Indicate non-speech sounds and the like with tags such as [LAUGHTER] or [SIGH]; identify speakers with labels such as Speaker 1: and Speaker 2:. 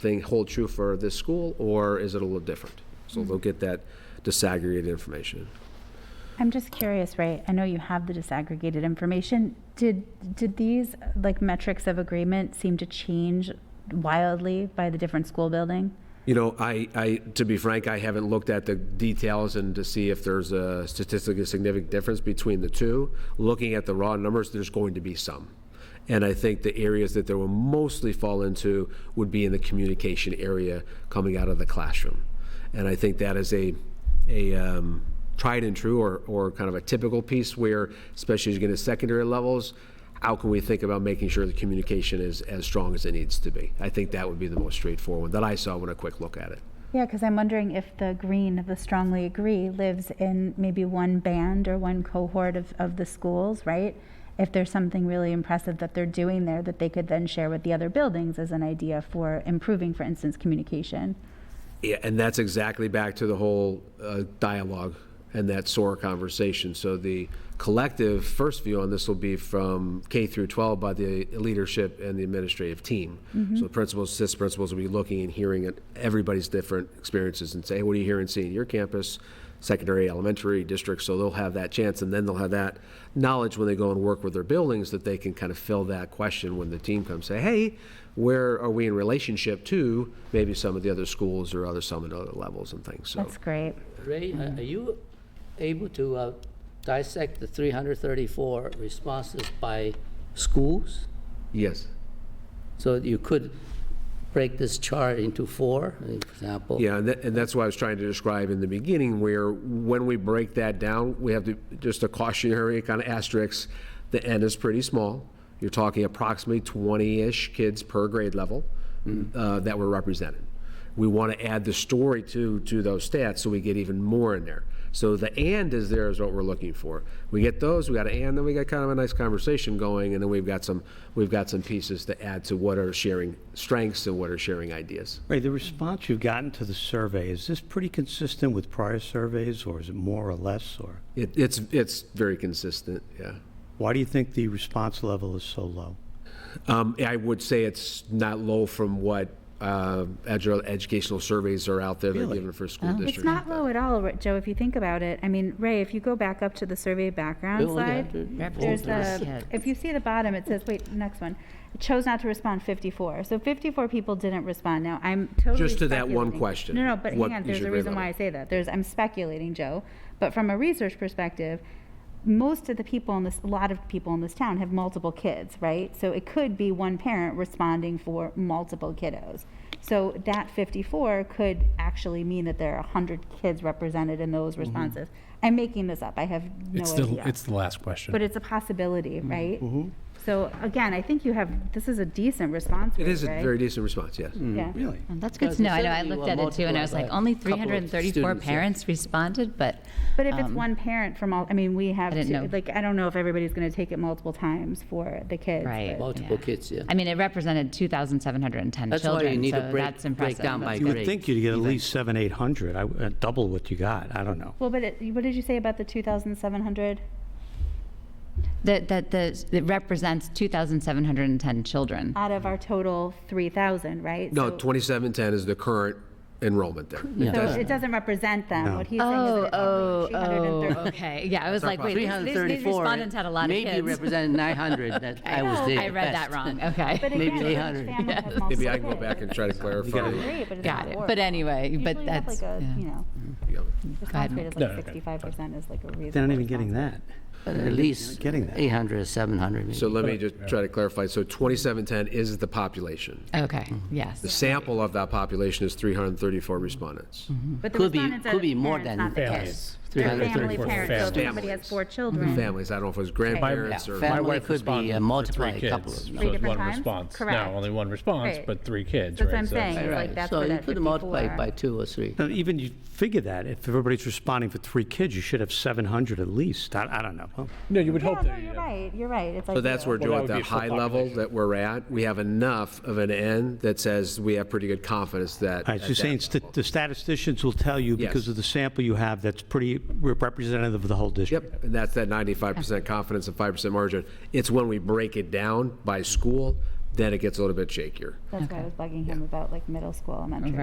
Speaker 1: thing hold true for this school, or is it a little different? So they'll get that disaggregated information.
Speaker 2: I'm just curious, Ray, I know you have the disaggregated information. Did, did these, like, metrics of agreement seem to change wildly by the different school building?
Speaker 1: You know, I, I, to be frank, I haven't looked at the details and to see if there's a statistically significant difference between the two. Looking at the raw numbers, there's going to be some. And I think the areas that they will mostly fall into would be in the communication area coming out of the classroom. And I think that is a, a um, tried and true or, or kind of a typical piece where, especially as you get into secondary levels, how can we think about making sure the communication is as strong as it needs to be? I think that would be the most straightforward that I saw when a quick look at it.
Speaker 2: Yeah, because I'm wondering if the green of the strongly agree lives in maybe one band or one cohort of, of the schools, right? If there's something really impressive that they're doing there that they could then share with the other buildings as an idea for improving, for instance, communication.
Speaker 1: Yeah, and that's exactly back to the whole uh, dialogue and that SOAR conversation. So the collective first view on this will be from K through 12 by the leadership and the administrative team. So principals, assistant principals will be looking and hearing at everybody's different experiences and say, hey, what are you hearing and seeing at your campus, secondary, elementary districts? So they'll have that chance, and then they'll have that knowledge when they go and work with their buildings that they can kind of fill that question when the team comes, say, hey, where are we in relationship to maybe some of the other schools or other some of the other levels and things? So
Speaker 2: That's great.
Speaker 3: Ray, are are you able to uh, dissect the 334 responses by schools?
Speaker 1: yes.
Speaker 3: So you could break this chart into four, uh, for example?
Speaker 1: Yeah, and that, and that's why I was trying to describe in the beginning, where when we break that down, we have to, just a cautionary kind of asterisk, the N is pretty small. You're talking approximately 20-ish kids per grade level uh, that were represented. We want to add the story to, to those stats, so we get even more in there. So the "and" is there is what we're looking for. We get those, we got an "and," then we got kind of a nice conversation going, and then we've got some, we've got some pieces to add to what are sharing strengths and what are sharing ideas.
Speaker 4: Ray, the response you've gotten to the survey, is this pretty consistent with prior surveys, or is it more or less, or?
Speaker 1: It, it's, it's very consistent, yeah.
Speaker 4: Why do you think the response level is so low?
Speaker 1: Um, I would say it's not low from what, uh, edu- educational surveys are out there that are
Speaker 4: Really?
Speaker 1: given for school districts.
Speaker 2: It's not low at all, Ri- Joe, if you think about it. I mean, Ray, if you go back up to the survey background
Speaker 3: Bill, look
Speaker 2: slide,
Speaker 3: at it.
Speaker 2: there's the,
Speaker 5: Yeah.
Speaker 2: if you see the bottom, it says, wait, next one. Chose not to respond 54. So 54 people didn't respond. Now, I'm totally
Speaker 1: Just to that one
Speaker 2: speculating.
Speaker 1: question.
Speaker 2: No, no, but
Speaker 1: What
Speaker 2: hang on,
Speaker 1: is
Speaker 2: there's
Speaker 1: your
Speaker 2: a
Speaker 1: grade
Speaker 2: reason why I
Speaker 1: level?
Speaker 2: say that. There's, I'm speculating, Joe, but from a research perspective, most of the people in this, a lot of people in this town have multiple kids, right? So it could be one parent responding for multiple kiddos. So that 54 could actually mean that there are 100 kids represented in those responses. I'm making this up. I have no
Speaker 6: Mm-hmm. It's the,
Speaker 2: idea.
Speaker 6: it's Mm-hmm. the last question.
Speaker 2: but it's a possibility, right?
Speaker 1: Mm-hmm.
Speaker 2: So again, I think you have, this is a decent response rate,
Speaker 1: It is a
Speaker 2: right? Mm.
Speaker 1: very decent response, yes.
Speaker 2: Yeah.
Speaker 4: Really?
Speaker 5: Well, That's good
Speaker 3: Because
Speaker 5: to know. I know, I
Speaker 3: instead you,
Speaker 5: looked
Speaker 3: uh,
Speaker 5: at it too, and
Speaker 3: multiply
Speaker 5: I was
Speaker 3: by
Speaker 5: like,
Speaker 3: a
Speaker 5: only
Speaker 3: couple of
Speaker 5: 334
Speaker 3: students, yeah.
Speaker 5: parents responded, but
Speaker 2: But if it's
Speaker 5: Um,
Speaker 2: one parent from all, I mean, we have,
Speaker 5: I didn't
Speaker 2: two-
Speaker 5: know.
Speaker 2: like, I don't know if everybody's going to take it multiple times for the kids.
Speaker 5: Right.
Speaker 2: but-
Speaker 3: Multiple
Speaker 5: yeah.
Speaker 3: kids, yeah.
Speaker 5: I mean, it represented 2,710
Speaker 3: That's why you
Speaker 5: children,
Speaker 3: need to
Speaker 5: so
Speaker 3: break-
Speaker 5: that's
Speaker 3: break
Speaker 5: impressive.
Speaker 3: down by
Speaker 5: That's
Speaker 4: You
Speaker 5: good.
Speaker 4: would
Speaker 3: Great.
Speaker 4: think you'd get at least seven, 800, I w- uh, double what you got, I don't know.
Speaker 2: Well, but it, what did you say about the 2,700?
Speaker 5: That, that, the- it represents 2,710 children.
Speaker 2: Out of our total 3,000, right?
Speaker 1: No,
Speaker 2: So-
Speaker 1: 2710 is the current enrollment there. It
Speaker 2: So
Speaker 1: does-
Speaker 2: it doesn't represent them.
Speaker 4: No.
Speaker 2: What he's saying is
Speaker 5: Oh,
Speaker 2: that
Speaker 5: oh,
Speaker 2: it's
Speaker 5: oh,
Speaker 2: 330.
Speaker 5: [LAUGHS] okay. Yeah, I was like, wait, these- these- these
Speaker 3: 334
Speaker 5: respondents had a lot of kids.
Speaker 3: Maybe represented 900, that I was there.
Speaker 5: [LAUGHS] I read that
Speaker 3: best.
Speaker 5: wrong, okay.
Speaker 2: [LAUGHS] But
Speaker 3: Maybe
Speaker 2: again, each
Speaker 3: 800.
Speaker 2: family has
Speaker 1: Maybe
Speaker 2: multiple
Speaker 1: I can go back and
Speaker 2: kids.
Speaker 1: try
Speaker 2: [LAUGHS]
Speaker 1: to clarify.
Speaker 2: Great, but it's
Speaker 5: Got
Speaker 2: not
Speaker 5: it.
Speaker 2: horrible.
Speaker 5: But anyway, but
Speaker 2: Usually you have,
Speaker 5: that's-
Speaker 2: like a,
Speaker 5: yeah. Mm.
Speaker 2: you know, response
Speaker 5: ahead,
Speaker 2: rate is
Speaker 6: No,
Speaker 2: like
Speaker 6: okay,
Speaker 2: 65% is like a reasonable.
Speaker 4: They're not even
Speaker 2: response.
Speaker 4: getting that.
Speaker 3: But At least
Speaker 4: Getting that.
Speaker 3: 800 or 700 maybe.
Speaker 1: So let me just try to clarify. So 2710 is the population.
Speaker 5: Okay, yes.
Speaker 1: The sample of that population is 334 respondents.
Speaker 2: But the
Speaker 3: Could be,
Speaker 2: respondents are
Speaker 3: could
Speaker 2: the
Speaker 3: be more
Speaker 2: parents,
Speaker 3: than.
Speaker 2: not the
Speaker 6: Families.
Speaker 2: kids. They're family
Speaker 3: 334
Speaker 2: parents, so if somebody
Speaker 1: Families.
Speaker 2: has four children,
Speaker 1: Families, I don't know if it was
Speaker 6: Yeah,
Speaker 1: grandparents or.
Speaker 3: fam-
Speaker 6: My
Speaker 3: Emily
Speaker 6: wife
Speaker 3: could be,
Speaker 6: responded
Speaker 3: uh,
Speaker 6: for
Speaker 3: multiply
Speaker 6: three
Speaker 3: a couple
Speaker 6: kids,
Speaker 3: of
Speaker 6: so
Speaker 2: Three
Speaker 6: it's
Speaker 2: different
Speaker 6: one
Speaker 2: times?
Speaker 6: response.
Speaker 2: Correct.
Speaker 6: Now, only one response,
Speaker 2: Right.
Speaker 6: but three kids,
Speaker 2: That's
Speaker 6: right?
Speaker 2: what I'm
Speaker 6: So it's-
Speaker 2: saying. It's like
Speaker 3: Right,
Speaker 2: that's
Speaker 3: so
Speaker 2: where
Speaker 3: you
Speaker 2: that
Speaker 3: could multiply
Speaker 2: 54
Speaker 3: it by two or three.
Speaker 4: Now, even you figure that, if everybody's responding for three kids, you should have 700 at least, I, I don't know. Well,
Speaker 6: No, you would
Speaker 2: Yeah,
Speaker 6: hope
Speaker 2: no,
Speaker 6: that,
Speaker 2: you're
Speaker 6: yeah.
Speaker 2: right, you're right. It's like.
Speaker 1: So that's
Speaker 2: zero.
Speaker 1: where,
Speaker 6: Well,
Speaker 1: Joe,
Speaker 6: that
Speaker 1: at the
Speaker 6: would be full
Speaker 1: high level
Speaker 6: population.
Speaker 1: that we're at, we have enough of an N that says we have pretty good confidence that.
Speaker 4: All
Speaker 1: at
Speaker 4: right, so you're
Speaker 1: that
Speaker 4: saying sta-
Speaker 1: level.
Speaker 4: the statisticians will tell you, because
Speaker 1: Yes.
Speaker 4: of the sample you have, that's pretty rep- representative of the whole district?
Speaker 1: Yep, and that's that ninety-five percent confidence and five percent margin. It's when we break it down by school, then it gets a little bit shakier.
Speaker 2: That's why I was bugging him about like middle school, elementary.